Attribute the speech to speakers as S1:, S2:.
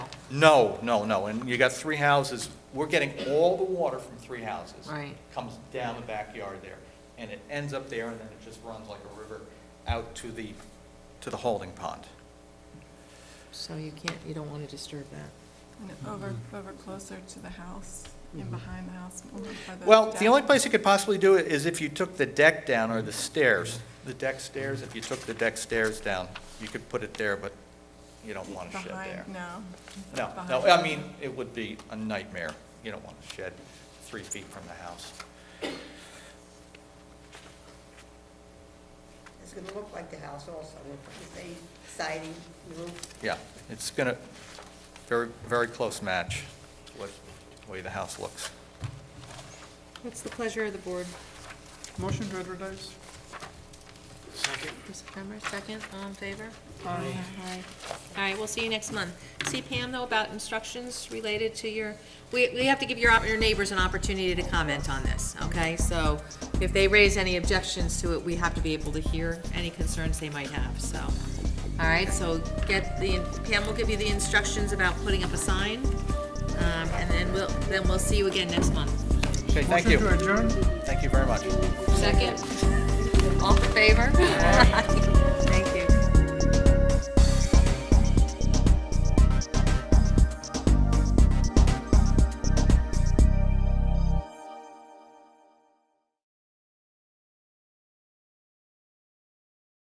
S1: No, no, no, and you got three houses, we're getting all the water from three houses.
S2: Right.
S1: Comes down the backyard there, and it ends up there, and then it just runs like a river out to the, to the holding pond.
S2: So you can't, you don't want to disturb that.
S3: And Over,
S1: Mm-hmm.
S3: over closer to the house and behind the house. more by the
S1: Well,
S3: deck.
S1: the only place you could possibly do it is if you took the deck down or the stairs, the deck stairs, if you took the deck stairs down, you could put it there, but you don't want a shed there.
S3: Behind, no.
S1: No, no,
S3: behind.
S1: I mean, it would be a nightmare. You don't want a shed three feet from the house.
S4: It's gonna look like the house also, with the same siding, roof.
S1: Yeah, it's gonna, very, very close match to what, the way the house looks.
S2: What's the pleasure of the board?
S5: Motion to advertise?
S2: Mr. Kramer, second, all in favor?
S5: Aye.
S2: Aye. All right, we'll see you next month. See Pam, though, about instructions related to your, we, we have to give your, op- your neighbors an opportunity to comment on this, okay? So if they raise any objections to it, we have to be able to hear any concerns they might have, so. All right, so get the, Pam will give you the instructions about putting up a sign, um, and then we'll, then we'll see you again next month.
S1: Okay, thank you.
S5: Motion to adjourn?
S1: Thank you very much.
S2: Second, all in favor?